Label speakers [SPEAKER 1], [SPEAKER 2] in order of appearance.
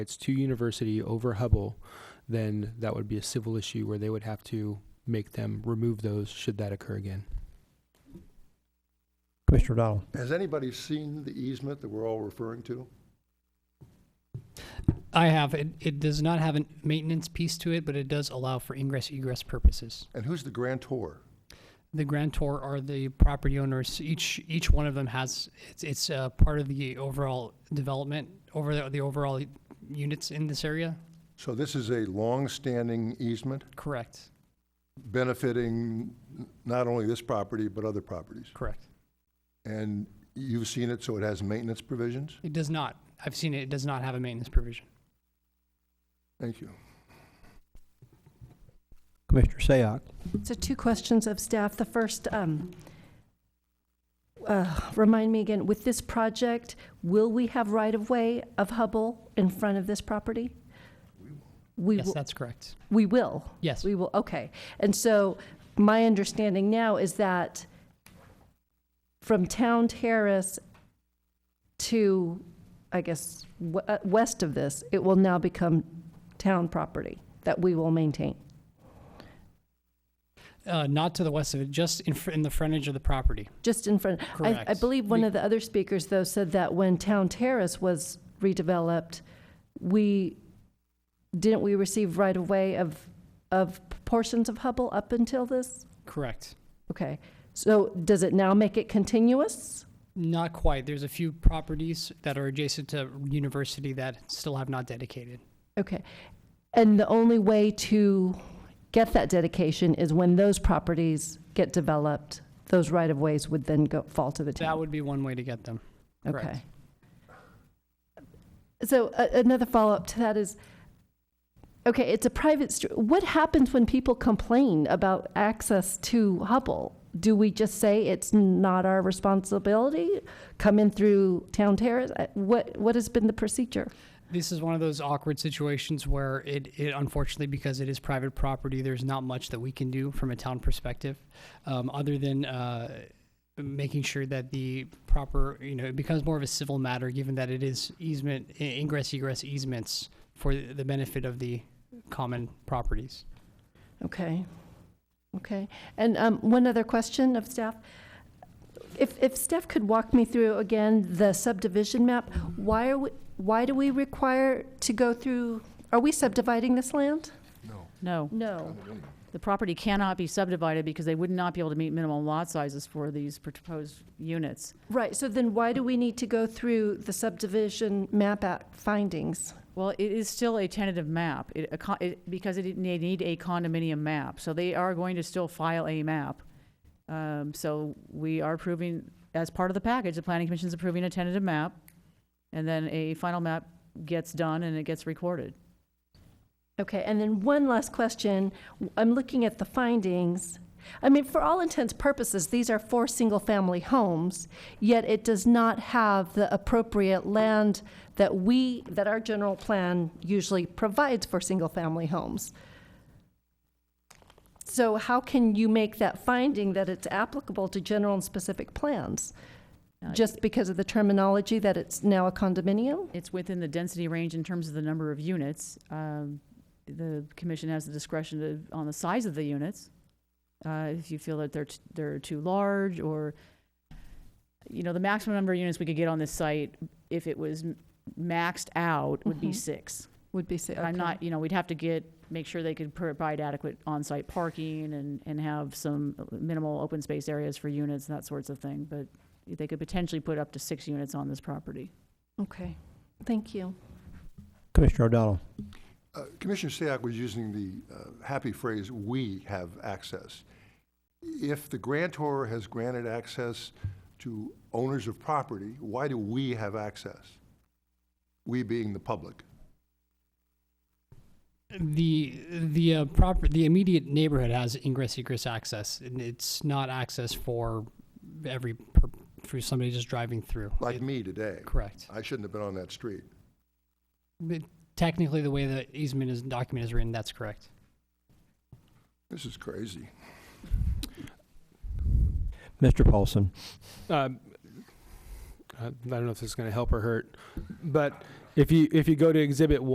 [SPEAKER 1] it's to university over Hubble, then that would be a civil issue where they would have to make them remove those should that occur again.
[SPEAKER 2] Commissioner O'Donnell.
[SPEAKER 3] Has anybody seen the easement that we're all referring to?
[SPEAKER 4] I have. It, it does not have a maintenance piece to it, but it does allow for ingress egress purposes.
[SPEAKER 3] And who's the grantor?
[SPEAKER 4] The grantor are the property owners. Each each one of them has it's it's uh, part of the overall development over the, the overall units in this area.
[SPEAKER 3] So this is a long-standing easement
[SPEAKER 4] Correct.
[SPEAKER 3] benefiting not only this property, but other properties.
[SPEAKER 4] Correct.
[SPEAKER 3] And you've seen it, so it has maintenance provisions?
[SPEAKER 4] It does not. I've seen it. It does not have a maintenance provision.
[SPEAKER 3] Thank you.
[SPEAKER 2] Commissioner Sayoc.
[SPEAKER 5] So two questions of staff. The first, um, uh, remind me again, with this project, will we have right-of-way of Hubble in front of this property? We
[SPEAKER 4] yes,
[SPEAKER 5] will,
[SPEAKER 4] that's correct.
[SPEAKER 5] we will,
[SPEAKER 4] Yes.
[SPEAKER 5] we will, okay. And so my understanding now is that from Town Terrace to, I guess, w- uh, west of this, it will now become town property that we will maintain.
[SPEAKER 4] Uh, not to the west of it, just in, fr- in the frontage of the property.
[SPEAKER 5] Just in front. I, I
[SPEAKER 4] Correct.
[SPEAKER 5] believe one
[SPEAKER 4] We-
[SPEAKER 5] of the other speakers, though, said that when Town Terrace was redeveloped, we, didn't we receive right-of-way of, of portions of Hubble up until this?
[SPEAKER 4] Correct.
[SPEAKER 5] Okay, so does it now make it continuous?
[SPEAKER 4] Not quite. There's a few properties that are adjacent to university that still have not dedicated.
[SPEAKER 5] Okay, and the only way to get that dedication is when those properties get developed, those right-of-ways would then go, fall to the town?
[SPEAKER 4] That would be one way to get them. Correct.
[SPEAKER 5] Okay. So a- another follow-up to that is, okay, it's a private, str- what happens when people complain about access to Hubble? Do we just say it's not our responsibility? Come in through Town Terrace? Uh, What, what has been the procedure?
[SPEAKER 4] This is one of those awkward situations where it, it unfortunately, because it is private property, there's not much that we can do from a town perspective, um, other than uh, making sure that the proper, you know, it becomes more of a civil matter, given that it is easement, i- ingress egress easements for the benefit of the common properties.
[SPEAKER 5] Okay, okay. And um, one other question of staff. If, if staff could walk me through again the subdivision map, why are we, why do we require to go through, are we subdividing this land?
[SPEAKER 3] No.
[SPEAKER 6] No,
[SPEAKER 3] Oh,
[SPEAKER 5] No.
[SPEAKER 6] the property cannot be subdivided because they would not be able to meet minimum lot sizes for these proposed units.
[SPEAKER 5] Right, so then why do we need to go through the subdivision map act findings?
[SPEAKER 6] Well, it is still a tentative map, it, a co- it- because it, they need a condominium map, so they are going to still file a map. Um, so we are approving, as part of the package, the planning commission's approving a tentative map, and then a final map gets done and it gets recorded.
[SPEAKER 5] Okay, and then one last question. I'm looking at the findings. I mean, for all intents purposes, these are four single-family homes, yet it does not have the appropriate land that we, that our general plan usually provides for single-family homes. So how can you make that finding that it's applicable to general and specific plans?
[SPEAKER 6] Uh,
[SPEAKER 5] Just because of the terminology that it's now a condominium?
[SPEAKER 6] It's within the density range in terms of the number of units. Um, The commission has the discretion to, on the size of the units. Uh, If you feel that they're, t- they're too large or, you know, the maximum number of units we could get on this site, if it was m- maxed out, would be
[SPEAKER 5] Mhm.
[SPEAKER 6] six.
[SPEAKER 5] Would be safe.
[SPEAKER 6] I'm not, you know, we'd have to get, make sure they could provide adequate on-site parking and, and have some uh, minimal open space areas for units, and that sorts of thing. But they could potentially put up to six units on this property.
[SPEAKER 5] Okay, thank you.
[SPEAKER 2] Commissioner O'Donnell.
[SPEAKER 3] Uh, Commissioner Sayak was using the uh, happy phrase, "we have access." If the grantor has granted access to owners of property, why do we have access? We being the public.
[SPEAKER 4] The the uh, proper the immediate neighborhood has ingress egress access, and it's not access for every per, for somebody just driving through.
[SPEAKER 3] Like
[SPEAKER 4] It-
[SPEAKER 3] me today.
[SPEAKER 4] Correct.
[SPEAKER 3] I shouldn't have been on that street.
[SPEAKER 4] But Technically, the way the easement is document is written, that's correct.
[SPEAKER 3] This is crazy.
[SPEAKER 2] Mr. Paulson.
[SPEAKER 1] Um, I I don't know if this is going to help or hurt, but if you if you go to Exhibit